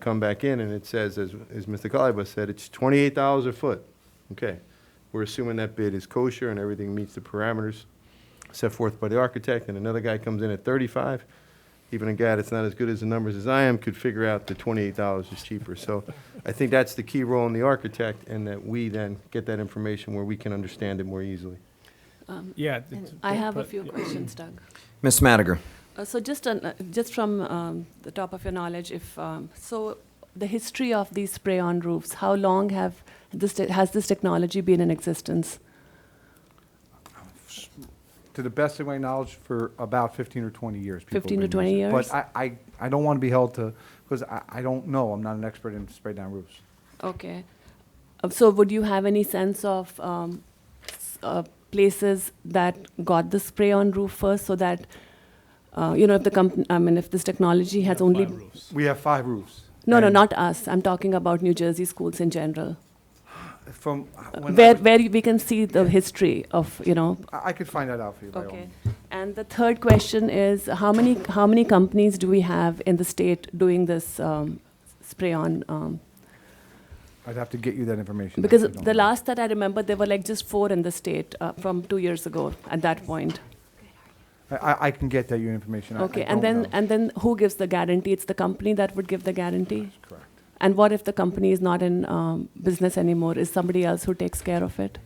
come back in and it says, as, as Mr. Kalibas said, it's twenty-eight dollars a foot. Okay, we're assuming that bid is kosher and everything meets the parameters set forth by the architect, and another guy comes in at thirty-five. Even a guy that's not as good as the numbers as I am could figure out that twenty-eight dollars is cheaper. So I think that's the key role in the architect, and that we then get that information where we can understand it more easily. Yeah. And it's- I have a but- few questions, Doug. Ms. Madiger. Uh, So just, on, uh, just from um, the top of your knowledge, if, um, so the history of these spray-on roofs, how long have this, te- has this technology been in existence? to the best of my knowledge, for about 15 or 20 years. people have 15 to been 20 using it. years? But I, I, I don't want to be held to, because I, I don't know, I'm not an expert in spray down roofs. Okay. Uh, So would you have any sense of um, s- uh, places that got the spray-on roof first so that, uh, you know, if the company, I mean, if this technology has only, Flat roofs. We have five roofs. no, no, and not us. I'm talking about New Jersey schools in general. From, when I, where, was- where we can see the history of, you know. I I could find that out for you. by all Okay. means. And the third question is, how many, how many companies do we have in the state doing this um, spray-on? um, I'd have to get you that information. I Because actually don't the know. last that I remember, there were like just four in the state uh, from two years ago at that point. I- I, I can get that you information. I- I Okay, and don't then, know. and then who gives the guarantee? It's the company that would give the guarantee? That's correct. And what if the company is not in um, business anymore? Is somebody else who takes care of it?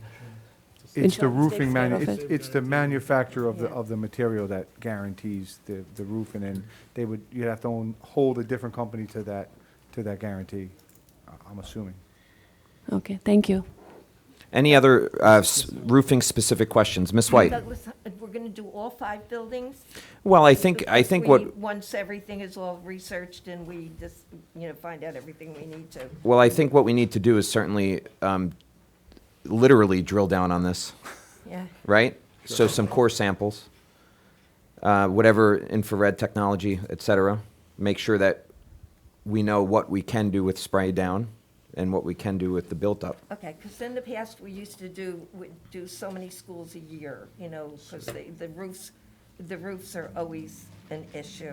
It's the Insurance takes roofing, care manu- of it's, it. it's the manufacturer of the, Yeah. of the material that guarantees the, the roof, and then they would, you'd have to own, hold a different company to that, to that guarantee, I- I'm assuming. Okay, thank you. Any other uh, s- roofing-specific questions? Ms. White? Douglas, uh, we're going to do all five buildings? Well, I think, I Because think we- what, Once everything is all researched and we just, you know, find out everything we need to. well, I think what we need to do is certainly um, literally drill down on this, Yeah. right? So some core samples, uh, whatever infrared technology, et cetera. Make sure that we know what we can do with spray down and what we can do with the built-up. Okay, because in the past, we used to do, we do so many schools a year, you know, because the the roofs, the roofs are always an issue.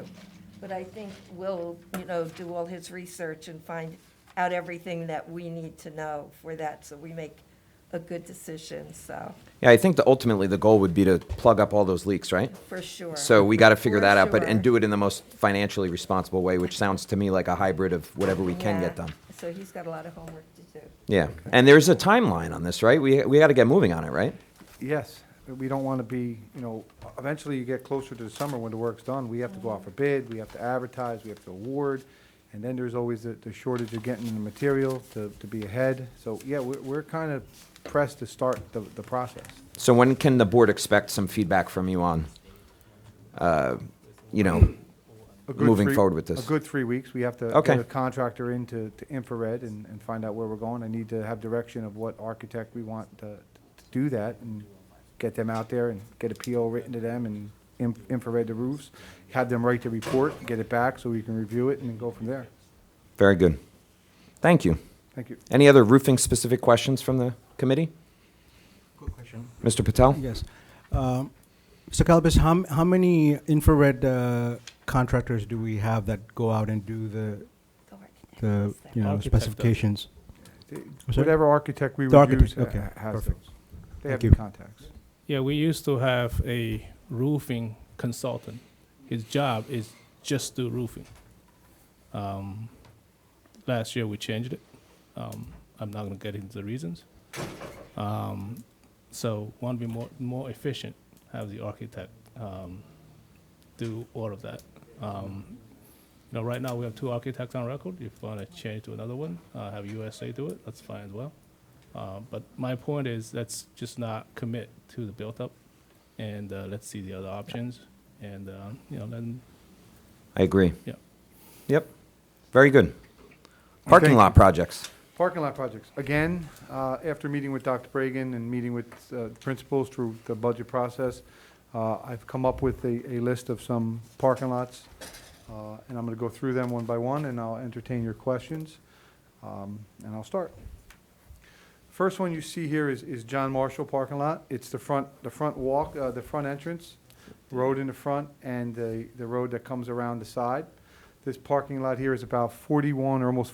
But I think Will, you know, do all his research and find out everything that we need to know for that, so we make a good decision, so, Yeah, I think that ultimately the goal would be to plug up all those leaks, right? for sure. So we got to figure For that out, but, sure. and do it in the most financially responsible way, which sounds to me like a hybrid of whatever we can get Yeah, done. So he's got a lot of homework to do. Yeah. And there's a timeline on this, right? We, we got to get moving on it, right? Yes, we don't want to be, you know, eventually you get closer to the summer when the work's done, we have to go out for bid, we have to advertise, we have to award, and then there's always the, the shortage of getting the material to, to be ahead. So, yeah, we're, we're kind of pressed to start the, the process. So when can the board expect some feedback from you on, uh, you know, A good Moving three- forward with this. A good three weeks, we have to Okay. get a contractor in to, to infrared and, and find out where we're going. I need to have direction of what architect we want to, to do that and get them out there and get a PO written to them and in- infrared the roofs, have them write the report, get it back so we can review it and then go from there. very good. Thank you. Thank you. Any other roofing-specific questions from the committee? Quick question. Mr. Patel? Yes. Um, Mr. Kalbis, how, m- how many infrared uh, contractors do we have that go out and do the, Go architect. the, What's that? you know, Architect does. specifications? sorry? Whatever architect we The would use architect, ha- okay, ha- has those. perfect. They have Thank the you. contacts. Yeah, we used to have a roofing consultant. His job is just do roofing. Um, last year we changed it. Um, I'm not gonna get into the reasons. Um, so want to be more more efficient, have the architect um, do all of that. Um, you know, right now we have two architects on record. If you want to change to another one, uh, have USA do it. That's fine as well. Uh, But my point is, let's just not commit to the built-up, and uh, let's see the other options, and, uh, you know, then, I agree. yeah. Yep. Very good. Parking Thank lot projects. Parking lot projects, again, uh, after meeting with Dr. Bragan and meeting with uh, principals through the budget process, uh, I've come up with a, a list of some parking lots, uh, and I'm going to go through them one by one, and I'll entertain your questions, um, and I'll start. First one you see here is, is John Marshall parking lot. It's the front, the front walk, uh, the front entrance, road in the front, and the, the road that comes around the side. This parking lot here is about 41 or almost